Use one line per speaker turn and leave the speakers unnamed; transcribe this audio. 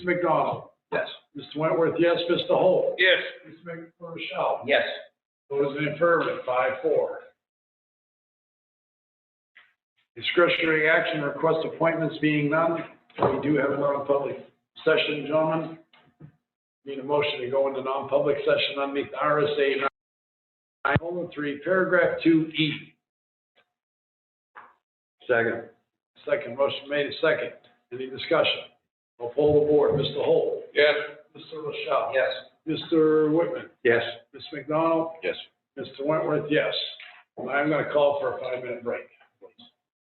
Mr. McDonald?
Yes.
Mr. Wentworth, yes. Mr. Holt?
Yes.
Mr. Rochelle?
Yes.
Those in affirmative, five, four. Discretionary action request appointments being none. We do have a non-public session, gentlemen. Need a motion to go into non-public session underneath RSA nine colon three, paragraph two E.
Second.
Second motion made, second. Any discussion? I'll poll the board. Mr. Holt?
Yes.
Mr. LaChapelle?
Yes.
Mr. Whitman?
Yes.
Ms. McDonald?
Yes.
Mr. Wentworth, yes. And I'm gonna call for a five-minute break.